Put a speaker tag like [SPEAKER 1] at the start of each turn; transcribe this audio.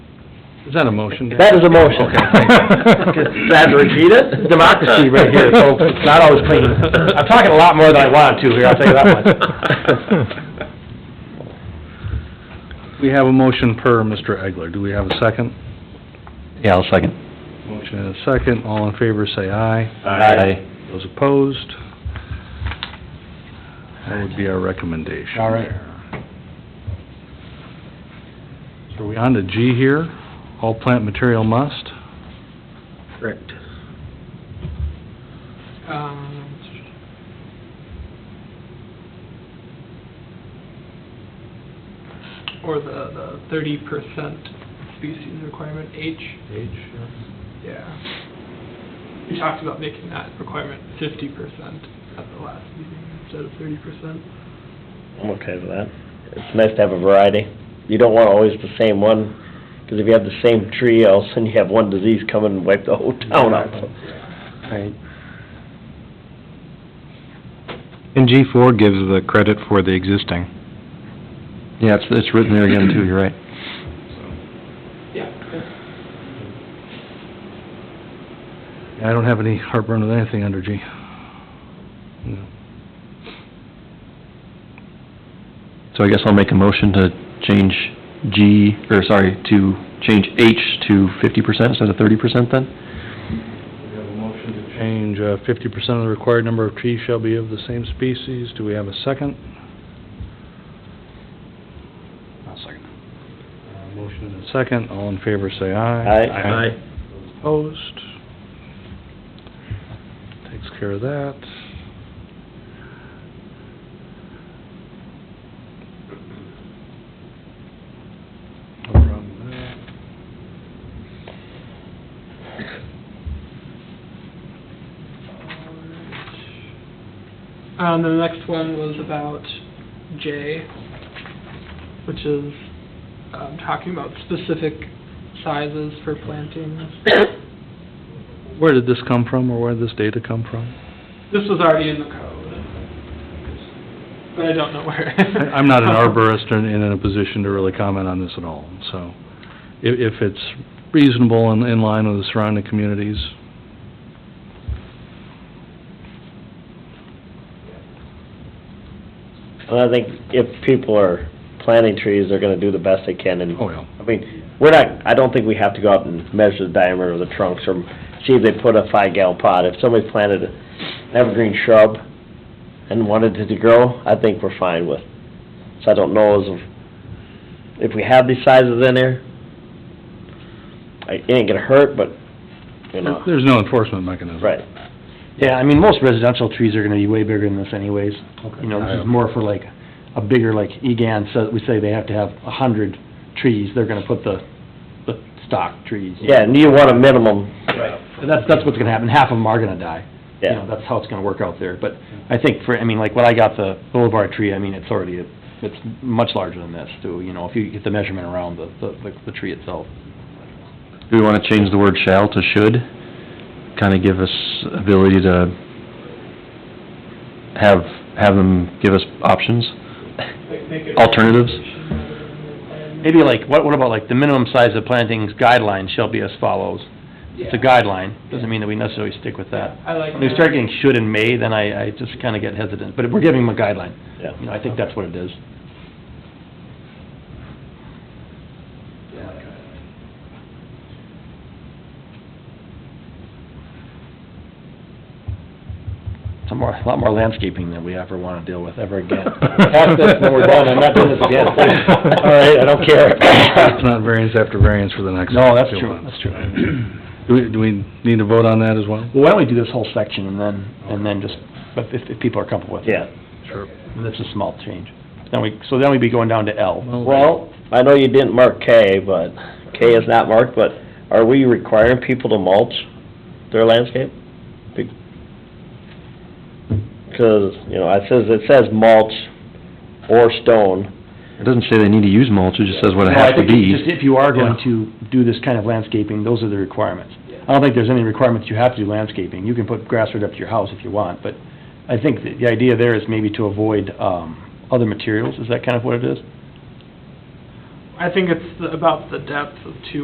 [SPEAKER 1] Is that a motion? Dan?
[SPEAKER 2] That is a motion.
[SPEAKER 1] Okay, thank you.
[SPEAKER 2] Glad to repeat it. Democracy right here, folks. It's not always clean. I'm talking a lot more than I wanted to here, I'll tell you that much.
[SPEAKER 1] We have a motion per Mr. Egler. Do we have a second?
[SPEAKER 3] Yeah, I'll second.
[SPEAKER 1] Motion and a second. All in favor, say aye.
[SPEAKER 3] Aye.
[SPEAKER 1] Those opposed? That would be our recommendation.
[SPEAKER 2] All right.
[SPEAKER 1] there. So are we on to G here? All plant material must?
[SPEAKER 2] Correct.
[SPEAKER 4] Um, Or the, the thirty percent species requirement, H,
[SPEAKER 1] H,
[SPEAKER 4] yeah. We talked about making that requirement fifty percent at the last meeting instead of thirty percent.
[SPEAKER 2] I'm okay with that. It's nice to have a variety. You don't want always the same one, because if you have the same tree, all of a sudden you have one disease come and wipe the whole
[SPEAKER 3] Oh,
[SPEAKER 2] town out. Right.
[SPEAKER 5] And G four gives the credit for the existing.
[SPEAKER 3] Yeah, it's, it's written there again too, you're right.
[SPEAKER 4] Yeah.
[SPEAKER 1] I don't have any heartburn with anything under G. No.
[SPEAKER 3] So I guess I'll make a motion to change G, or sorry, to change H to fifty percent instead of thirty percent then?
[SPEAKER 1] We have a motion to change uh, fifty percent of the required number of trees shall be of the same species. Do we have a second? I'll second. Uh, Motion and a second. All in favor, say aye.
[SPEAKER 2] Aye. Aye.
[SPEAKER 1] Those Opposed? Takes care of that. No problem with that.
[SPEAKER 4] Um, the next one was about J, which is, um, talking about specific sizes for plantings.
[SPEAKER 1] Where did this come from, or where did this data come from?
[SPEAKER 4] This was already in the code. But I don't know where.
[SPEAKER 1] I- I'm not an arborist and and in a position to really comment on this at all, so if, if it's reasonable and in line with the surrounding communities,
[SPEAKER 2] And I think if people are planting trees, they're gonna do the best they can, and,
[SPEAKER 1] oh well.
[SPEAKER 2] I mean, we're not, I don't think we have to go out and measure the diameter of the trunks or see if they put a five gallon pot. If somebody planted an evergreen shrub and wanted it to grow, I think we're fine with. So I don't know as if, if we have these sizes in there, I- it ain't gonna hurt, but, you know,
[SPEAKER 1] There's no enforcement mechanism.
[SPEAKER 2] right.
[SPEAKER 6] Yeah, I mean, most residential trees are gonna be way bigger than this anyways. You know, this is more for like, a bigger, like, EGAN, so we say they have to have a hundred trees, they're gonna put the, the stock trees.
[SPEAKER 2] Yeah, and you want a minimum,
[SPEAKER 6] And That's, that's what's gonna happen, half of them are gonna die. You know,
[SPEAKER 2] yeah.
[SPEAKER 6] That's how it's gonna work out there, but I think for, I mean, like, when I got the boulevard tree, I mean, it's already, it's much larger than this, too, you know, if you get the measurement around the, the, the tree itself.
[SPEAKER 3] Do we wanna change the word shall to should? Kinda give us ability to have, have them give us options? Alternatives?
[SPEAKER 6] Maybe like, what, what about like, the minimum size of plantings guidelines shall be as follows? It's a guideline, doesn't mean that we necessarily stick with that.
[SPEAKER 4] I like
[SPEAKER 6] When we
[SPEAKER 4] that.
[SPEAKER 6] start getting should and may, then I, I just kinda get hesitant, but we're giving them a guideline.
[SPEAKER 2] Yeah.
[SPEAKER 6] You know, I think that's what it is. It's a more, a lot more landscaping than we ever wanna deal with ever again.
[SPEAKER 2] Ask this when we're done, I'm not doing this again. All right, I don't care.
[SPEAKER 1] It's not variance after variance for the next.
[SPEAKER 6] No, that's
[SPEAKER 1] few
[SPEAKER 6] true,
[SPEAKER 1] months.
[SPEAKER 6] that's true.
[SPEAKER 1] Do we, do we need to vote on that as well?
[SPEAKER 6] Well, why don't we do this whole section and then, and then just, but if, if people are comfortable with it.
[SPEAKER 2] Yeah.
[SPEAKER 1] Sure.
[SPEAKER 6] And that's a small change. Then we, so then we'd be going down to L.
[SPEAKER 2] Well, I know you didn't mark K, but, K is not marked, but are we requiring people to mulch their landscape? Because, you know, it says, it says mulch or stone.
[SPEAKER 3] It doesn't say they need to use mulch, it just says what it
[SPEAKER 6] No, I
[SPEAKER 3] has to
[SPEAKER 6] think it's
[SPEAKER 3] be.
[SPEAKER 6] Just if you are going to do this kind of landscaping, those are the requirements. I don't think there's any requirements you have to do landscaping. You can put grass right up to your house if you want, but I think that the idea there is maybe to avoid, um, other materials. Is that kind of what it is?
[SPEAKER 4] I think it's the- about the depth of two